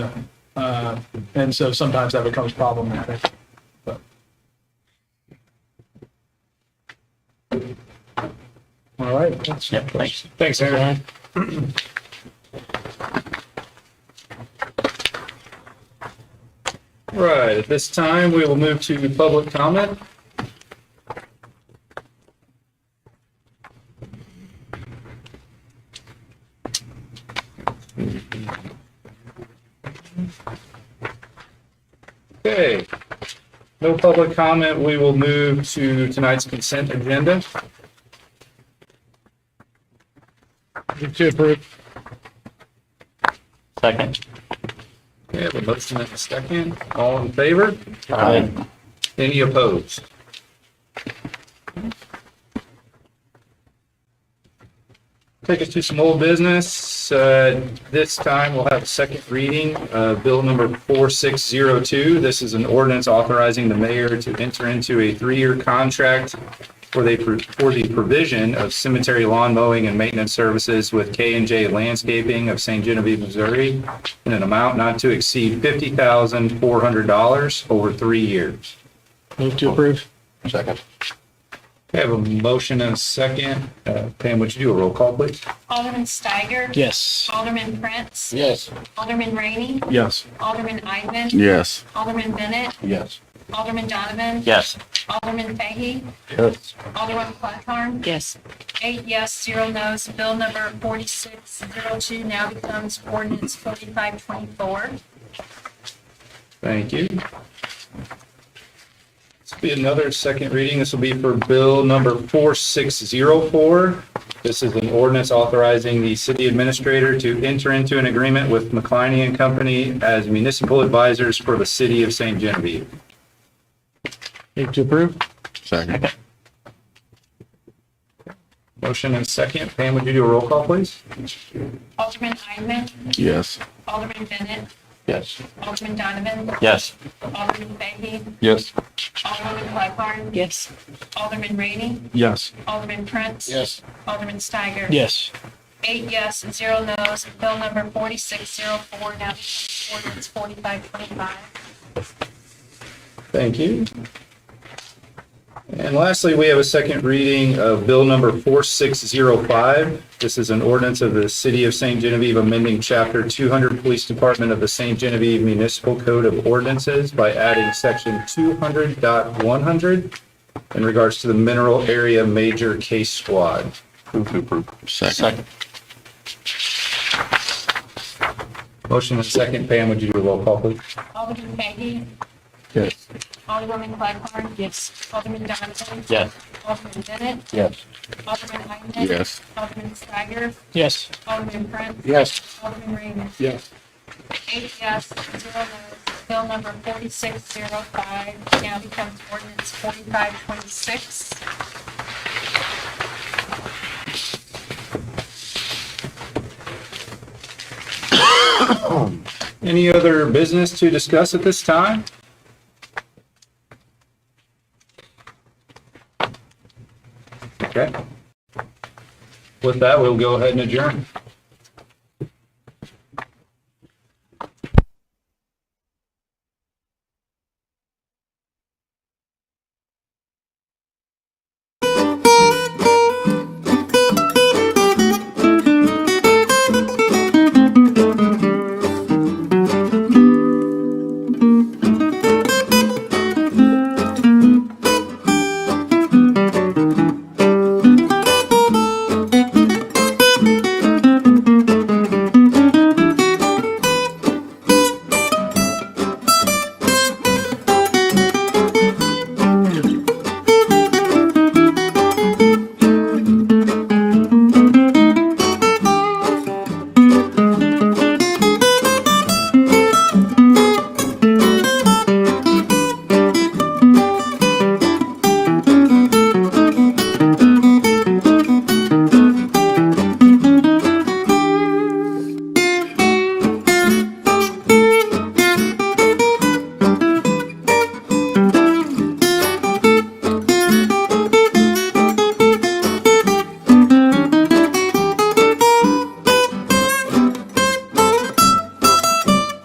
Uh, and so sometimes that becomes problematic. But All right. Yep, thanks. Thanks, Aaron. Right, at this time, we will move to public comment. Okay, no public comment, we will move to tonight's consent agenda. Second. Okay, I have a motion and a second. All in favor? Aye. Any opposed? Take us to some old business. Uh, This time, we'll have a second reading, uh, Bill number 4602. This is an ordinance authorizing the mayor to enter into a three-year contract for the, for the provision of cemetery lawn mowing and maintenance services with k and J Landscaping of St. Genevieve, Missouri, in an amount not to exceed $50,400 over three years. Move to approve. Second. I have a motion and a second. Uh, Pam, would you do a roll call, please? Alderman Steiger. Yes. Alderman Prince. Yes. Alderman Rainey. Yes. Alderman Eidman. Yes. Alderman Bennett. Yes. Alderman Donovan. Yes. Alderman Fahey. Yes. Alderman Clacarn. Yes. Eight yes, zero no's. Bill number 4602 now becomes ordinance 4524. Thank you. This will be another second reading. This will be for Bill number 4604. This is an ordinance authorizing the city administrator to enter into an agreement with McLeany and Company as municipal advisors for the city of St. Genevieve. Move to approve. Second. Motion and second. Pam, would you do a roll call, please? Alderman Eidman. Yes. Alderman Bennett. Yes. Alderman Donovan. Yes. Alderman Fahey. Yes. Alderman Clacarn. Yes. Alderman Rainey. Yes. Alderman Prince. Yes. Alderman Steiger. Yes. Eight yes and zero no's. Bill number 4604 now becomes ordinance 4525. Thank you. And lastly, we have a second reading of Bill Number 4605. This is an ordinance of the City of St. Genevieve amending Chapter 200 Police Department of the St. Genevieve Municipal Code of Ordinances by adding Section 200.100 in regards to the Mineral Area Major Case Squad. Second. Motion and second. Pam, would you do a roll call, please? Alderman Fahey. Yes. Alderwoman Clagghorn. Yes. Alderman Donovan. Yes. Alderman Bennett. Yes. Alderman Eidman. Yes. Alderman Steiger. Yes. Alderman Prince. Yes. Alderman Rainey. Yes. Eight yes, zero no's. Bill number 4605 now becomes ordinance 4526. Any other business to discuss at this time? Okay. With that, we'll go ahead and adjourn.